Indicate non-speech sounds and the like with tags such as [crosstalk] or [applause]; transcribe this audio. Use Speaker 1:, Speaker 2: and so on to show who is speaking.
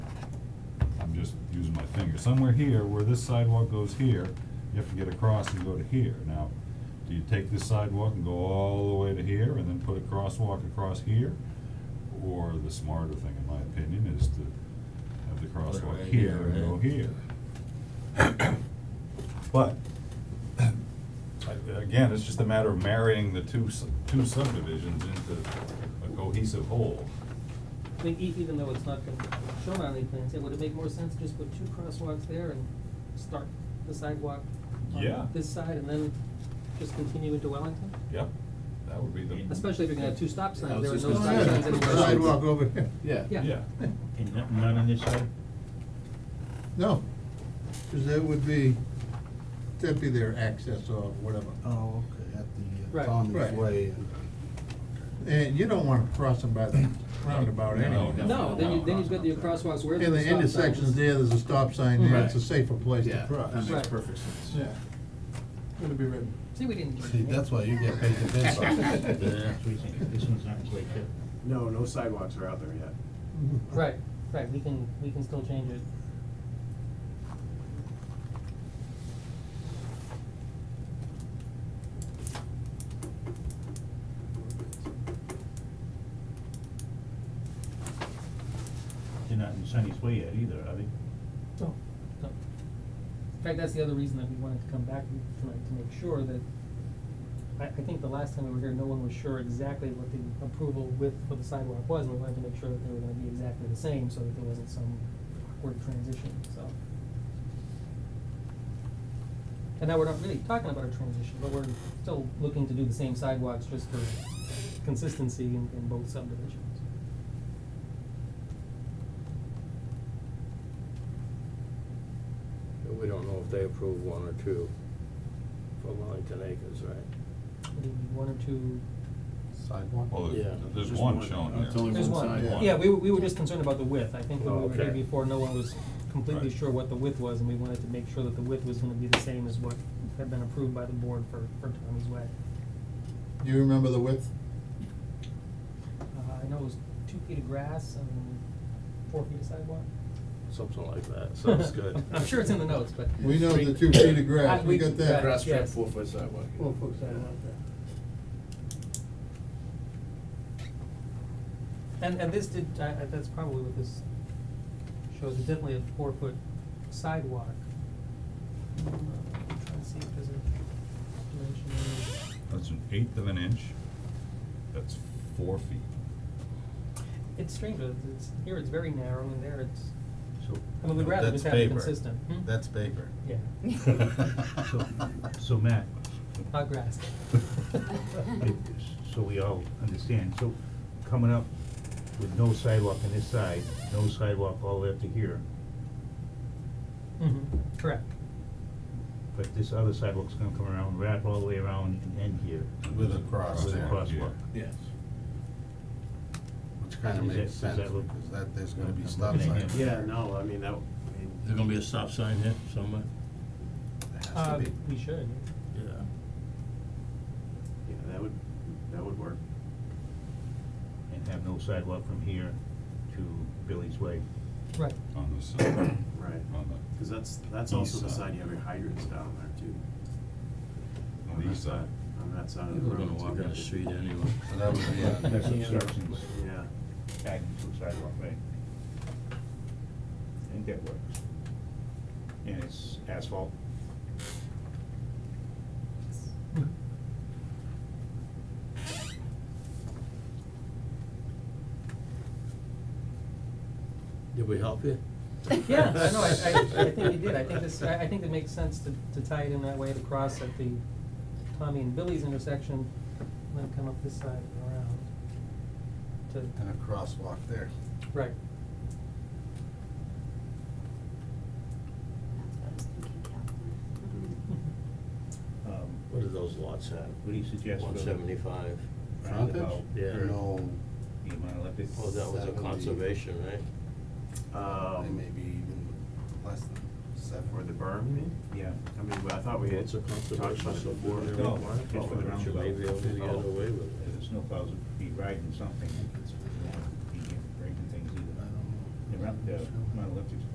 Speaker 1: using my finger, somewhere here, where this sidewalk goes here, you have to get across and go to here. Now, do you take this sidewalk and go all the way to here and then put a crosswalk across here? Or the smarter thing, in my opinion, is to have the
Speaker 2: it
Speaker 1: crosswalk
Speaker 2: right
Speaker 1: here
Speaker 2: here,
Speaker 1: and go
Speaker 2: right?
Speaker 1: here. But, I- again, it's just a matter of marrying the two, s- two subdivisions into a cohesive whole.
Speaker 3: I mean, e- even though it's not gonna shown on any plans, it would it make more sense to just put two crosswalks there and start the sidewalk
Speaker 1: Yeah.
Speaker 3: on this side and then just continue into Wellington?
Speaker 1: Yep, that would be the.
Speaker 3: Especially if you're gonna have two stop
Speaker 2: Mm-hmm. I
Speaker 3: signs,
Speaker 2: was
Speaker 3: there are no
Speaker 2: just
Speaker 3: stop
Speaker 2: gonna say,
Speaker 3: signs
Speaker 2: put the
Speaker 3: anywhere else.
Speaker 2: Sidewalk over here.
Speaker 4: Yeah.
Speaker 3: Yeah.
Speaker 1: Yeah,
Speaker 5: And no- none on this side?
Speaker 2: No, because that would be, that'd be their access or whatever.
Speaker 4: Oh, okay, at the uh,
Speaker 3: Right.
Speaker 4: Thomas
Speaker 2: Right.
Speaker 4: Way. and-
Speaker 2: And you don't want to cross them by the roundabout
Speaker 1: No,
Speaker 2: anyway.
Speaker 1: no.
Speaker 3: No, then you, then you've got your crosswalks where
Speaker 2: In
Speaker 3: there's
Speaker 2: the
Speaker 3: stop signs.
Speaker 2: intersections there, there's a stop sign there,
Speaker 4: Right.
Speaker 2: it's a safer place to
Speaker 4: Yeah,
Speaker 2: cross.
Speaker 4: that makes
Speaker 3: Right.
Speaker 4: perfect sense.
Speaker 6: Yeah. Gonna be written.
Speaker 3: See, we didn't.
Speaker 4: See, that's why you get paid to
Speaker 5: [laughs]
Speaker 4: piss
Speaker 5: Yeah,
Speaker 4: off.
Speaker 5: that's what we think. This one's not in place yet.
Speaker 6: No, no sidewalks are out there yet.
Speaker 3: Right, right, we can, we can still change it.
Speaker 5: They're not in Sunny's Way yet either, are they?
Speaker 3: No, Oh, no. In fact, that's the other reason that we wanted to come back tonight, to make sure that, I, I think the last time we were here, no one was sure exactly what the approval width for the sidewalk was, and we wanted to make sure that they were gonna be exactly the same, so that there wasn't some awkward transition, so. And now we're not really talking about a transition, but we're still looking to do the same sidewalks just for consistency in, in both subdivisions.
Speaker 7: We don't know if they approve one or two for Wellington Acres, right?
Speaker 3: Maybe one or two
Speaker 1: well,
Speaker 4: Sidewalk?
Speaker 1: there's,
Speaker 7: Yeah.
Speaker 1: there's
Speaker 6: Just
Speaker 1: one
Speaker 6: one.
Speaker 1: shown
Speaker 4: It's
Speaker 1: there.
Speaker 4: only
Speaker 3: There's
Speaker 4: one
Speaker 3: one,
Speaker 4: sidewalk.
Speaker 3: yeah, we, were- we were just concerned about the width, I think when
Speaker 7: Oh,
Speaker 3: we were here
Speaker 7: okay.
Speaker 3: before, no one was completely
Speaker 1: Right.
Speaker 3: sure what the width was, and we wanted to make sure that the width was gonna be the same as what had been approved by the board for, for Tommy's Way.
Speaker 2: Do you remember the width?
Speaker 3: Uh, I know it was two feet of grass and four feet of sidewalk.
Speaker 7: Something like
Speaker 3: [laughs]
Speaker 7: that, sounds good.
Speaker 3: I'm sure it's in the notes, but.
Speaker 2: We know the two feet of grass,
Speaker 3: I-
Speaker 2: we got that.
Speaker 3: Grass
Speaker 4: strip,
Speaker 3: yes.
Speaker 4: four-foot sidewalk.
Speaker 2: Well, folks, I want that.
Speaker 3: And, and this did, I, I, that's probably what this shows, It's definitely a four-foot sidewalk. Uh, I'm Trying to see if there's a dimension. in it.
Speaker 1: That's an eighth of an inch, that's four feet.
Speaker 3: It's strange, though, it's, here it's very narrow, and there it's,
Speaker 5: So,
Speaker 3: I mean, we'd
Speaker 4: No,
Speaker 3: rather
Speaker 4: that's
Speaker 3: just have it
Speaker 4: paper.
Speaker 3: consistent. Hmm?
Speaker 4: That's paper.
Speaker 3: Yeah,
Speaker 5: so,
Speaker 4: [laughs]
Speaker 5: so Matt,
Speaker 3: not grass.
Speaker 5: if- so we all understand, so coming up with no sidewalk on this side, no sidewalk all the way up to here,
Speaker 3: Mhm, Correct.
Speaker 5: but this other sidewalk's gonna come around, wrap all the way around and end here.
Speaker 4: With a cross
Speaker 5: With a
Speaker 4: there.
Speaker 5: crosswalk.
Speaker 4: Yes. Which kind of
Speaker 5: Is that-
Speaker 4: makes
Speaker 5: does
Speaker 4: sense,
Speaker 5: that look-
Speaker 4: because that, there's gonna be
Speaker 5: I'm
Speaker 4: stop
Speaker 5: looking at
Speaker 4: signs.
Speaker 5: him.
Speaker 6: Yeah, no, I mean, that, I mean,
Speaker 8: There's gonna be a stop sign here somewhere?
Speaker 4: There has
Speaker 3: Uh,
Speaker 4: to be.
Speaker 3: we should.
Speaker 8: Yeah.
Speaker 6: yeah, that would, that would work.
Speaker 5: And have no sidewalk from here to Billy's Way.
Speaker 3: Right.
Speaker 1: On the side,
Speaker 6: Right.
Speaker 1: on the,
Speaker 6: Because that's, that's
Speaker 1: East
Speaker 6: also the
Speaker 1: side.
Speaker 6: side you have your hydrants down there too.
Speaker 1: on the east side.
Speaker 6: On that side of the
Speaker 8: People are
Speaker 6: road.
Speaker 8: gonna walk
Speaker 6: too.
Speaker 8: down the street anyway.
Speaker 4: So that
Speaker 5: [laughs]
Speaker 4: would be, a-
Speaker 5: That's obstructions,
Speaker 6: Yeah,
Speaker 5: adding to a sidewalk, right? I think that works. And it's asphalt.
Speaker 7: Did we help you?
Speaker 3: [laughs] Yeah, I know, I, I, I think you did, I think this, I, I think it makes sense to, to tie it in that way to cross at the Tommy and Billy's intersection, and then come up this side and around. To,
Speaker 4: and a crosswalk there.
Speaker 3: right,
Speaker 9: That's what I was thinking, Mm-hmm. Calvin.
Speaker 5: Um,
Speaker 7: What do those lots have?
Speaker 5: What do you suggest, Bill?
Speaker 7: One seventy-five.
Speaker 4: Frontage?
Speaker 5: Roundabout,
Speaker 7: Yeah.
Speaker 4: Or No,
Speaker 5: The amount of left it-
Speaker 7: Oh, that was a
Speaker 4: Seventy.
Speaker 7: conservation, right?
Speaker 5: Oh.
Speaker 4: they
Speaker 6: um,
Speaker 4: may be even less than seven.
Speaker 6: or um, the berm, you mean?
Speaker 5: Yeah.
Speaker 6: I mean, well, I thought we had
Speaker 7: What's a
Speaker 6: talked
Speaker 7: conservation
Speaker 6: about it
Speaker 7: zone?
Speaker 6: before.
Speaker 7: No,
Speaker 5: No,
Speaker 6: Why?
Speaker 5: just for the
Speaker 7: You Oh, should maybe be able to get
Speaker 5: roundabout.
Speaker 7: away with it.
Speaker 5: Uh, The snowplows would be riding something, it's, you know, be breaking things either. The round, the amount of left it's